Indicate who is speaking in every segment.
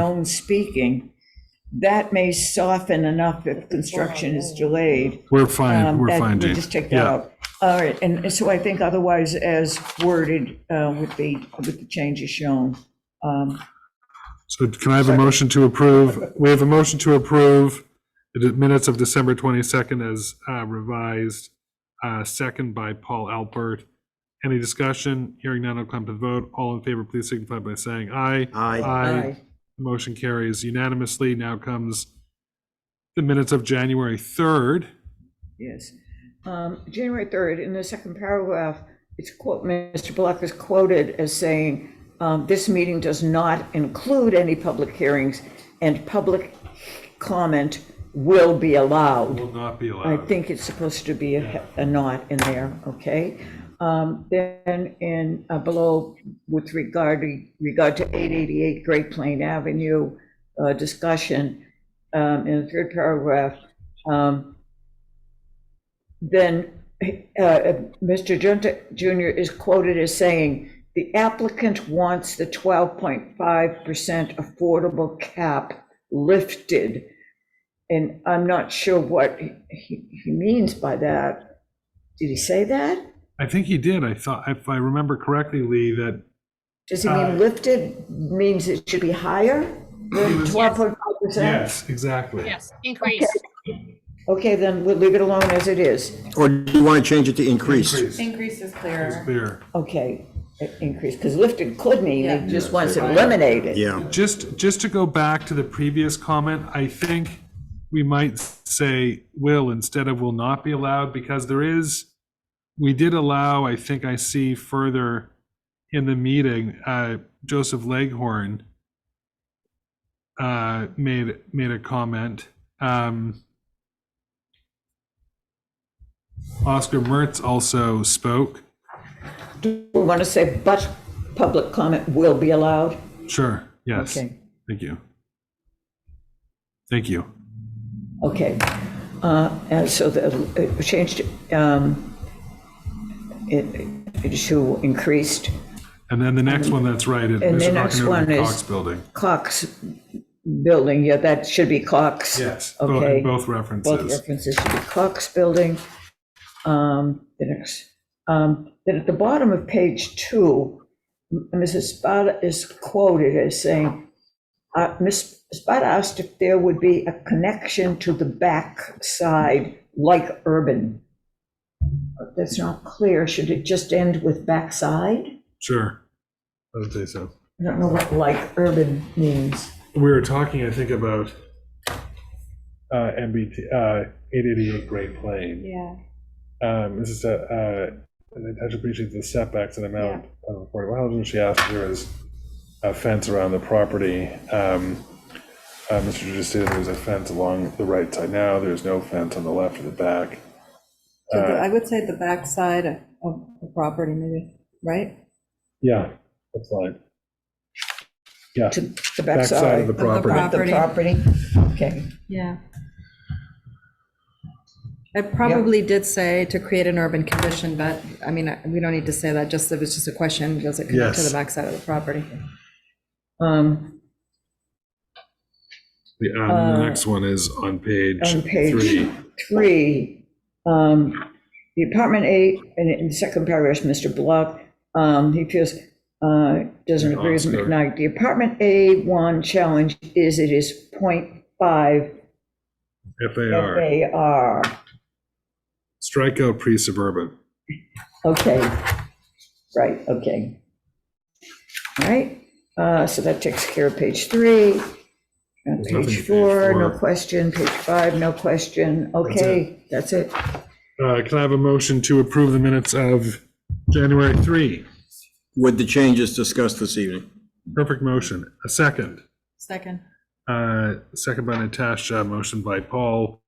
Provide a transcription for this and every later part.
Speaker 1: alone speaking, that may soften enough if construction is delayed.
Speaker 2: We're fine,
Speaker 1: Um,
Speaker 2: we're
Speaker 1: that-
Speaker 2: fine,
Speaker 1: we'll
Speaker 2: Jane.
Speaker 1: Just take that
Speaker 2: Yeah.
Speaker 1: out. All right, and so I think otherwise as worded uh, would be, with the changes shown. Um,
Speaker 2: So can I have a motion to approve? We have a motion to approve the minutes of December 22nd as uh, revised, uh, second by Paul Alpert. Any discussion? Hearing none, I'll come to the vote. All in favor, please signify by saying aye.
Speaker 3: Aye.
Speaker 2: Aye. The Motion carries unanimously. Now comes the minutes of January 3rd.
Speaker 1: Yes. Um, January 3rd, in the second paragraph, it's quote, Mr. Block is quoted as saying, um, "This meeting does not include any public hearings, and public comment will be allowed."
Speaker 2: Will not be
Speaker 1: I
Speaker 2: allowed.
Speaker 1: think it's supposed to be a a not in there, okay? Um, Then in, uh, below, with regard, regard to 888 Great Plain Avenue uh, discussion, um, in the third paragraph, um, then uh, Mr. Junta Jr. is quoted as saying, "The applicant wants the 12.5% affordable cap lifted." And I'm not sure what he, he he means by that. Did he say that?
Speaker 2: I think he did. I thought, if I remember correctly, Lee, that
Speaker 1: Does he
Speaker 2: Uh,
Speaker 1: mean lifted means it should be higher? Twelve point five percent?
Speaker 2: Yes, exactly.
Speaker 4: Yes, increase.
Speaker 1: Okay, then we'll leave it alone as it is.
Speaker 3: Or do you want to change it to increased?
Speaker 2: Increase.
Speaker 5: Increase is clearer.
Speaker 2: Clear.
Speaker 1: Okay, i- increase, because lifted could mean
Speaker 5: Yeah.
Speaker 1: it just wants it eliminated.
Speaker 3: Yeah,
Speaker 2: Just, just to go back to the previous comment, I think we might say will instead of will not be allowed because there is, we did allow, I think I see further in the meeting, uh, Joseph Leghorn uh, made, made a comment. Um, Oscar Mertz also spoke.
Speaker 1: We want to say, but public comment will be allowed?
Speaker 2: Sure, yes.
Speaker 1: Okay.
Speaker 2: Thank you. Thank you.
Speaker 1: Okay, uh, and so the, uh, it changed, um, it, it to increased
Speaker 2: And then the next one that's right is
Speaker 1: And the
Speaker 2: Bishop
Speaker 1: next
Speaker 2: Hockenheimer
Speaker 1: one is-
Speaker 2: Cox Building.
Speaker 1: Cox building, yeah, that should be Cox.
Speaker 2: Yes, both,
Speaker 1: Okay.
Speaker 2: in both
Speaker 1: Both
Speaker 2: references.
Speaker 1: references to the Cox Building. Um, The next, um, then at the bottom of page two, M- Mrs. Spada is quoted as saying, uh, Ms. Spada asked if there would be a connection to the back side like urban. That's not clear. Should it just end with backside?
Speaker 2: Sure. I would say so.
Speaker 1: I don't know what like urban means.
Speaker 2: We were talking, I think, about uh, MBT, uh, 888 Great Plain.
Speaker 5: Yeah.
Speaker 2: Um, This is a, uh, and I appreciate the setbacks and amount of affordable housing. She asked if there was a fence around the property. Um, uh, Mr. Judge stated there was a fence along the right side now. There's no fence on the left or the back.
Speaker 5: So the- I would say the backside of of the property maybe, right?
Speaker 2: Yeah, that's fine. Yeah,
Speaker 1: To the
Speaker 2: backside of
Speaker 1: backside
Speaker 2: the
Speaker 1: of
Speaker 2: property.
Speaker 1: the property? Okay.
Speaker 5: Yeah. I probably did say to create an urban condition, but, I mean, I- we don't need to say that, just, it was just a question, does it connect to
Speaker 2: Yes.
Speaker 5: the backside of the property?
Speaker 1: Um,
Speaker 2: The, um, the next one is on page
Speaker 1: on page
Speaker 2: three.
Speaker 1: three, um, the apartment eight, and in the second paragraph, Mr. Block, um, he feels, uh, doesn't agree with
Speaker 2: Oscar.
Speaker 1: McKnight. The apartment A one challenge is it is point five
Speaker 2: FAR,
Speaker 1: FAR.
Speaker 2: strike out pre-suburban.
Speaker 1: Okay, right, okay. All right, uh, so that takes care of page three. And
Speaker 2: There's nothing to
Speaker 1: Page
Speaker 2: page
Speaker 1: four, no
Speaker 2: four.
Speaker 1: question. Page five, no question. Okay, that's it.
Speaker 2: Uh, can I have a motion to approve the minutes of January three?
Speaker 3: with the changes discussed this evening.
Speaker 2: Perfect motion. A second.
Speaker 5: Second.
Speaker 2: Uh, second by Natasha, motion by Paul.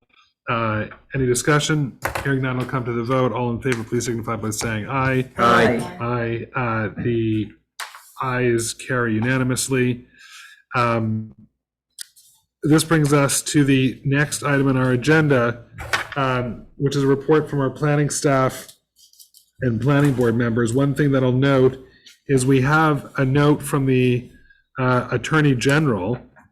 Speaker 2: Uh, any discussion? Hearing none, I'll come to the vote. All in favor, please signify by saying aye.
Speaker 3: Aye.
Speaker 2: Aye, uh, the ayes carry unanimously. Um, This brings us to the next item on our agenda, um, which is a report from our planning staff and planning board members. One thing that I'll note is we have a note from the uh, Attorney General